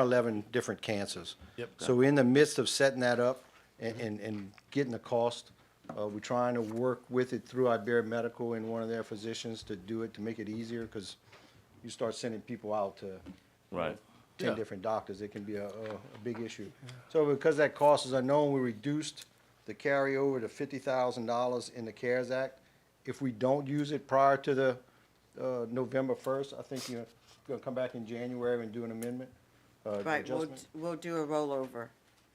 11 different cancers. Yep. So we're in the midst of setting that up and, and, and getting the cost. Uh, we're trying to work with it through Iberia Medical and one of their physicians to do it, to make it easier, because you start sending people out to Right. 10 Yeah. different doctors, it can be a, a, a big issue. So because that cost is unknown, we reduced the carryover to $50,000 in the CARES Act. If we don't use it prior to the, uh, November 1st, I think you're gonna come back in January and do an amendment, uh, Right, we'll, adjustment. we'll do a rollover.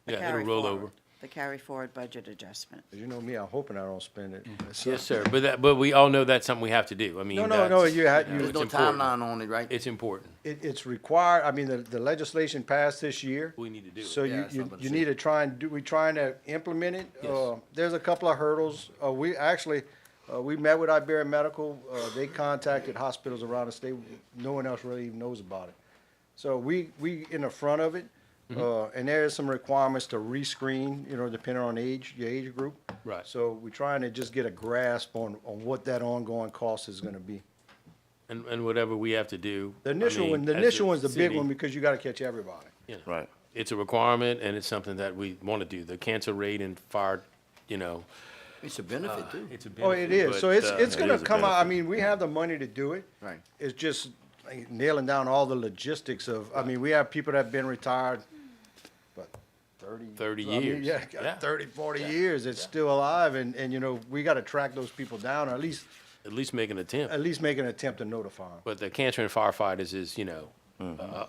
a Yeah, it'll carry roll forward, over. The carry forward budget adjustment. As you know me, I'm hoping I don't spend it. So- Yes, sir. But that, but we all know that's something we have to do. I mean, No, no, no, that's- you had, know, you, There's no it's important. timeline on it, right? It's important. It, it's required, I mean, the, the legislation passed this year. We need to do it. So Yeah, you, that's what I'm you, about you to say. need to try and do, we trying to implement it. Yes. Uh, There's a couple of hurdles. Uh, we actually, uh, we met with Iberia Medical. Uh, they contacted hospitals around the state. No one else really even knows about it. So we, we in the front of it, Mm-hmm. uh, and there is some requirements to rescreen, you know, depending on age, your age group. Right. So we're trying to just get a grasp on, on what that ongoing cost is gonna be. And, and whatever we have to do. The I initial mean, one, the as a initial one's the big city, one because you gotta catch everybody. you know, Right. It's a requirement and it's something that we want to do. The cancer rate and fire, you know, It's a benefit too. it's a benefit. Oh, it is. So but, it's, uh, it's it gonna is a come out, I benefit. mean, we have the money to do it. Right. It's just like, nailing down all the logistics of, I mean, we have people that have been retired, but thirty. 30 I mean, years. Yeah, Yeah. got thirty, forty years, it's still alive, and, and you know, we gotta track those people down, or at least, At least make an attempt. at least make an attempt to notify them. But the cancer and firefighters is, you know, uh,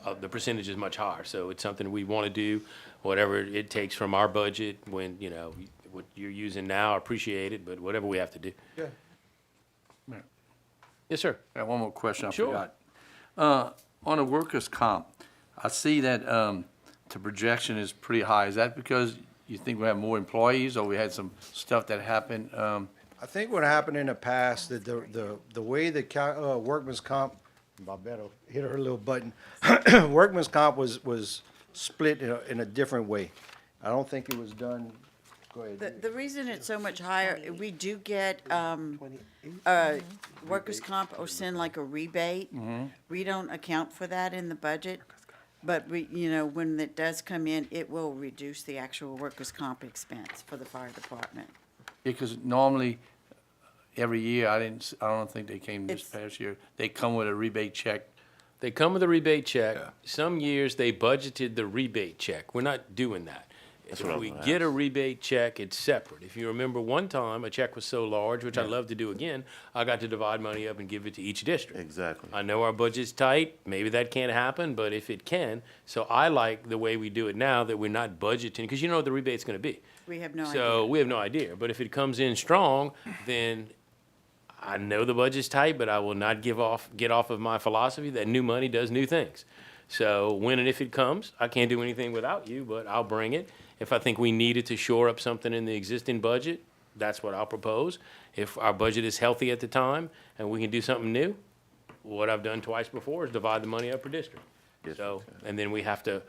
uh, the percentage is much higher. So it's something we want to do, whatever it takes from our budget when, you know, what you're using now, I appreciate it, but whatever we have to do. Yeah. Yes, sir. I got one more question I Sure. forgot. Uh, on the workers' comp, I see that, um, the projection is pretty high. Is that because you think we have more employees or we had some stuff that happened, um, I think what happened in the past, that the, the, the way the co- uh, workman's comp, Barbetta hit her little button. Workman's comp was, was split in a, in a different way. I don't think it was done, go ahead. The, the reason it's so much higher, we do get, um, uh, workers' comp or send like a rebate. Mm-hmm. We don't account for that in the budget, but we, you know, when it does come in, it will reduce the actual workers' comp expense for the fire department. because normally, uh, every year, I didn't, s- I don't think they came this It's- past year, they come with a rebate check. They come with a rebate check. Some years they budgeted the rebate check. We're not doing that. if what I was we gonna get a rebate check, it's separate. If you remember one time, a check was so large, which I'd love to do again, I got to divide money up and give it to each district. Exactly. I know our budget's tight. Maybe that can't happen, but if it can, so I like the way we do it now that we're not budgeting, because you know what the rebate's going to be. We have no idea. So we have no idea. But if it comes in strong, then I know the budget's tight, but I will not give off, get off of my philosophy that new money does new things. So when and if it comes, I can't do anything without you, but I'll bring it. If I think we needed to shore up something in the existing budget, that's what I'll propose. If our budget is healthy at the time and we can do something new, what I've done twice before is divide the money up per district. Yes, So, okay. and then we have to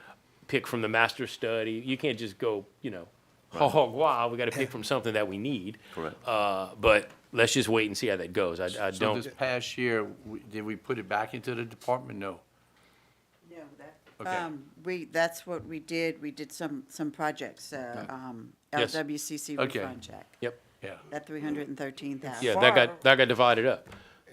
pick from the master study. You can't just go, you know, hog wild. We got to pick from something that we need. Correct. Uh, but let's just wait and see how that goes. I, I So this don't, past year, we- did we put it back into the department? No. No, that, Okay. um, we, that's what we did, we did some, some projects, uh, um, Yes. LWCC Okay. refund check, yep. Yeah. that three hundred and thirteen thousand. Yeah, that got, that got divided up.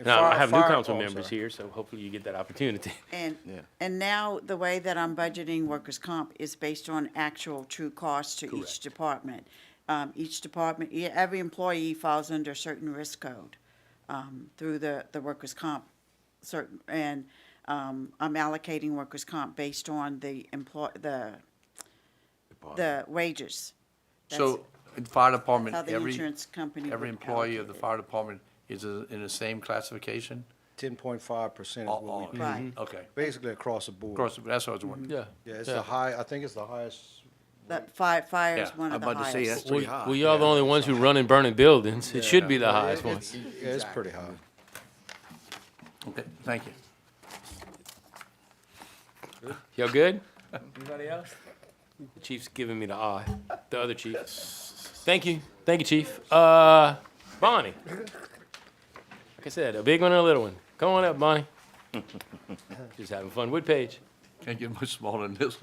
Now, I fire- have new fire- council oh, I'm members sorry. here, so hopefully you get that opportunity. And, Yeah. and now the way that I'm budgeting workers' comp is based on actual true costs to each department. Um, each department, e- every employee falls under a certain risk code, um, through the, the workers' comp certain, and, um, I'm allocating workers' comp based on the employ, the, the wages. That's- So, in fire department, How the every, insurance company every would employee of the allocate it. fire department is uh, in the same classification? Ten point five percent is All- what we, all- Right. Okay. basically across the Of board. course, that's what I was wondering. Yeah. Yeah, it's the high, I think it's the highest. That fire, fire is Yeah, one I'm of the about to say that's Uh, highest. pretty We, high. we are the only ones who run and burn in buildings. It should be the highest one. It's- Yeah, it's pretty high. Okay, thank you. Y'all good? Anybody else? The chief's giving me the eye, the other chief. Thank you, thank you, chief. Uh, Bonnie. Like I said, a big one and a little one. Come on up, Bonnie. Just having fun with Paige. Can't get much smaller than this.